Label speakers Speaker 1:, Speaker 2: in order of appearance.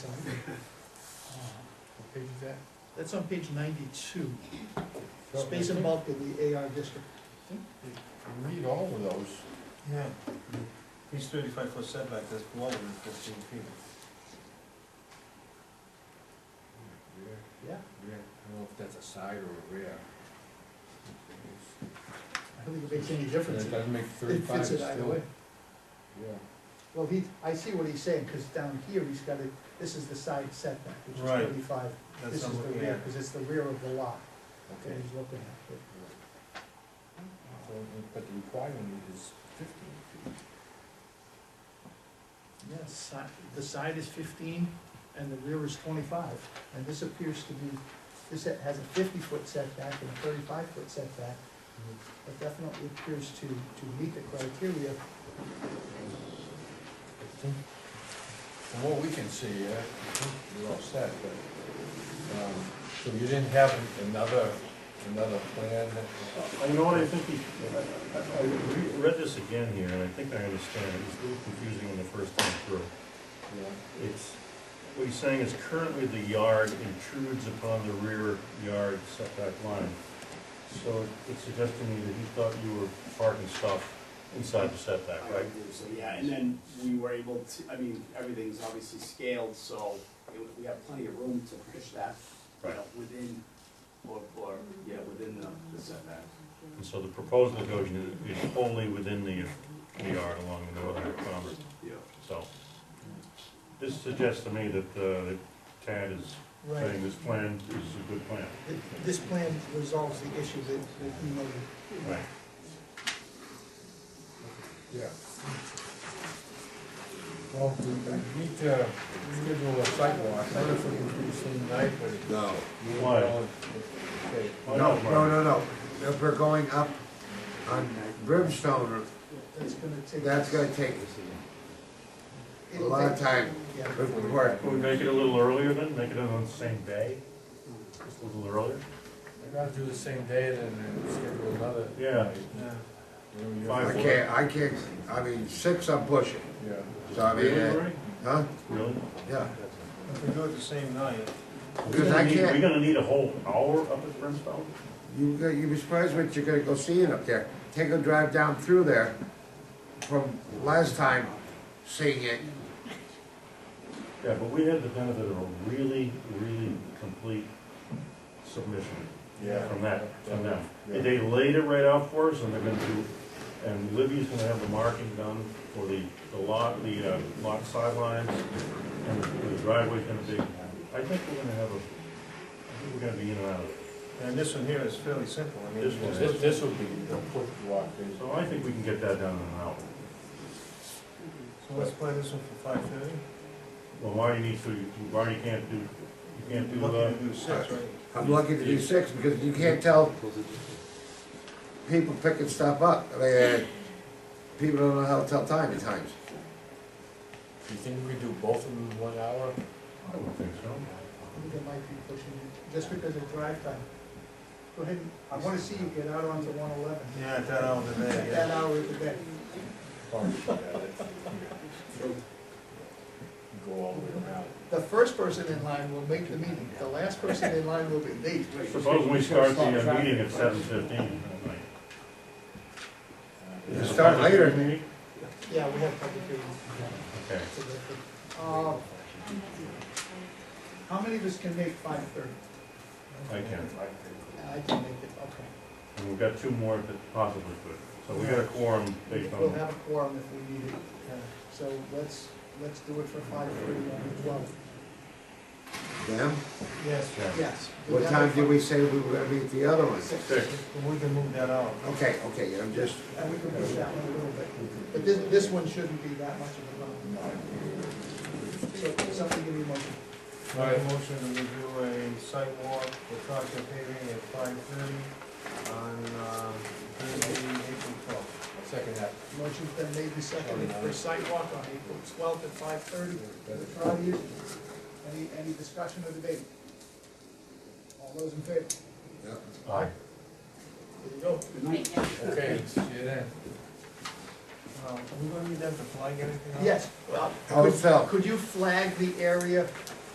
Speaker 1: Uh, That's on page ninety-two, space and bulk in the AR district.
Speaker 2: Read all of those.
Speaker 3: Yeah. He's thirty-five foot setback, that's below than fifteen feet.
Speaker 2: Rear,
Speaker 1: Yeah.
Speaker 2: rear, I don't know if that's a side or a rear.
Speaker 1: I don't think it makes any difference.
Speaker 2: That doesn't make
Speaker 1: It
Speaker 2: thirty-five
Speaker 1: fits it
Speaker 2: still.
Speaker 1: either way.
Speaker 2: Yeah.
Speaker 1: Well, he, I see what he's saying, because down here, he's got it, this is the side setback, which is
Speaker 3: Right.
Speaker 1: thirty-five. This
Speaker 3: That's
Speaker 1: is
Speaker 3: what
Speaker 1: the
Speaker 3: I'm looking
Speaker 1: rear,
Speaker 3: at.
Speaker 1: because it's the rear of the lot that
Speaker 2: Okay.
Speaker 1: he's looking at.
Speaker 2: So, but the requirement is fifteen feet.
Speaker 1: Yeah, side, the side is fifteen and the rear is twenty-five, and this appears to be, this ha- has a fifty-foot setback and a thirty-five foot setback. It definitely appears to, to meet the criteria.
Speaker 2: From what we can see, uh, I think you're all set, but, um, so you didn't have another, another plan that,
Speaker 4: Uh, You know what, I think, he- I- I I re- read this again here, and I think I understand, it was a little confusing when the first time through.
Speaker 2: you know,
Speaker 4: It's, what he's saying is currently the yard intrudes upon the rear yard setback line. So it's suggesting to me that he thought you were parking stuff inside the setback,
Speaker 5: I
Speaker 4: right?
Speaker 5: would believe So, yeah, and then we were able to, I mean, everything's obviously scaled, so it- we have plenty of room to push that, you know, within, or, or, yeah, within the the setback.
Speaker 4: And so the proposed negotiation is wholly within the the yard along the northern boundary,
Speaker 5: Yeah.
Speaker 4: so. This suggests to me that uh, that Tad is saying this plan is a good plan.
Speaker 1: Th- This plan resolves the issue that, that you noted.
Speaker 4: Right.
Speaker 2: yeah. Well, we we need to schedule a sidewalk, I don't know if we can do the same night, but.
Speaker 6: No,
Speaker 4: Why?
Speaker 2: Okay,
Speaker 4: Oh,
Speaker 6: no, no,
Speaker 4: Mark.
Speaker 6: no, no. If we're going up on Brimstone,
Speaker 1: That's gonna take.
Speaker 6: that's gonna take a lot of time
Speaker 1: Yeah.
Speaker 6: with the work.
Speaker 4: Can we make it a little earlier then, make it on the same day? Just a little earlier?
Speaker 2: I gotta do the same day and then schedule another.
Speaker 4: Yeah.
Speaker 2: night. Whatever you-
Speaker 4: Five.
Speaker 6: I can't, I can't, I mean, six I'm pushing,
Speaker 2: Yeah.
Speaker 6: so I mean, uh,
Speaker 4: Really?
Speaker 6: huh?
Speaker 4: Really?
Speaker 6: Yeah,
Speaker 3: If we do it the same night,
Speaker 6: Because I can't-
Speaker 4: We're gonna need a whole hour up at Brimstone?
Speaker 6: you, you'd be surprised what you're gonna go seeing up there. Take a drive down through there from last time seeing it.
Speaker 4: Yeah, but we had the benefit of a really, really complete submission
Speaker 2: Yeah.
Speaker 4: from that, from them.
Speaker 2: Yeah.
Speaker 4: They laid it right out for us, and they're gonna do, and Libby's gonna have the marking done for the, the lot, the, uh, lot sidelines, and the driveway's gonna be, I think we're gonna have a, I think we're gonna be in and out of it.
Speaker 3: and this one here is fairly simple, I mean.
Speaker 4: This one.
Speaker 3: it's
Speaker 2: This, this would be a quick walk, eh? is
Speaker 4: So I think we can get that done in an hour.
Speaker 3: So let's play this one for five thirty.
Speaker 4: Well, Marty needs to, Marty can't do, you can't do, uh,
Speaker 3: Looking to do six, right?
Speaker 6: I'm lucky to do six because you can't tell people picking stuff up. I mean, uh, people don't know how to tell time at times.
Speaker 2: Do you think we could do both of them in one hour?
Speaker 4: I don't think so.
Speaker 1: I think it might be pushing it, just because of drive time. Go ahead, and- I wanna see you get out onto one eleven,
Speaker 3: Yeah, at that hour of the day,
Speaker 1: at that
Speaker 3: yeah.
Speaker 1: hour of the day.
Speaker 2: Or, yeah, that's- Go all the way around.
Speaker 1: The first person in line will make the meeting, the last person in line will be late.
Speaker 4: Suppose we start the uh, meeting at seven fifteen.
Speaker 6: You start later.
Speaker 1: Yeah, we have public hearing.
Speaker 4: Okay.
Speaker 1: Uh, How many of us can make five thirty?
Speaker 4: I can.
Speaker 1: I can make it, okay.
Speaker 4: And we've got two more that possibly could. So we got a quorum based
Speaker 1: We'll
Speaker 4: on,
Speaker 1: have a quorum if we need it, uh, so let's, let's do it for five thirty on the twelfth.
Speaker 6: Them?
Speaker 3: Yes,
Speaker 4: yeah,
Speaker 1: Yes.
Speaker 6: What time did we say we were gonna meet the other one?
Speaker 1: Six.
Speaker 4: six.
Speaker 3: but we can move that out.
Speaker 6: Okay, okay, I'm just,
Speaker 1: And we can push that one a little bit, but this, this one shouldn't be that much of a problem. So, something give me a motion.
Speaker 3: Make a motion that we do a site walk for Proctor paving at five thirty on, um, Thursday, April twelfth.
Speaker 2: Second half.
Speaker 1: Motion's been made and seconded for sidewalk on April twelfth at five thirty. The trial use. Any, any discussion or debate? All those in favor?
Speaker 6: yeah.
Speaker 4: Aye.
Speaker 1: There you go.
Speaker 2: Okay, see you then.
Speaker 3: Uh, are we gonna need that to flag anything out?
Speaker 1: Yes, well,
Speaker 6: How it
Speaker 1: could,
Speaker 6: felt.
Speaker 1: could you flag the area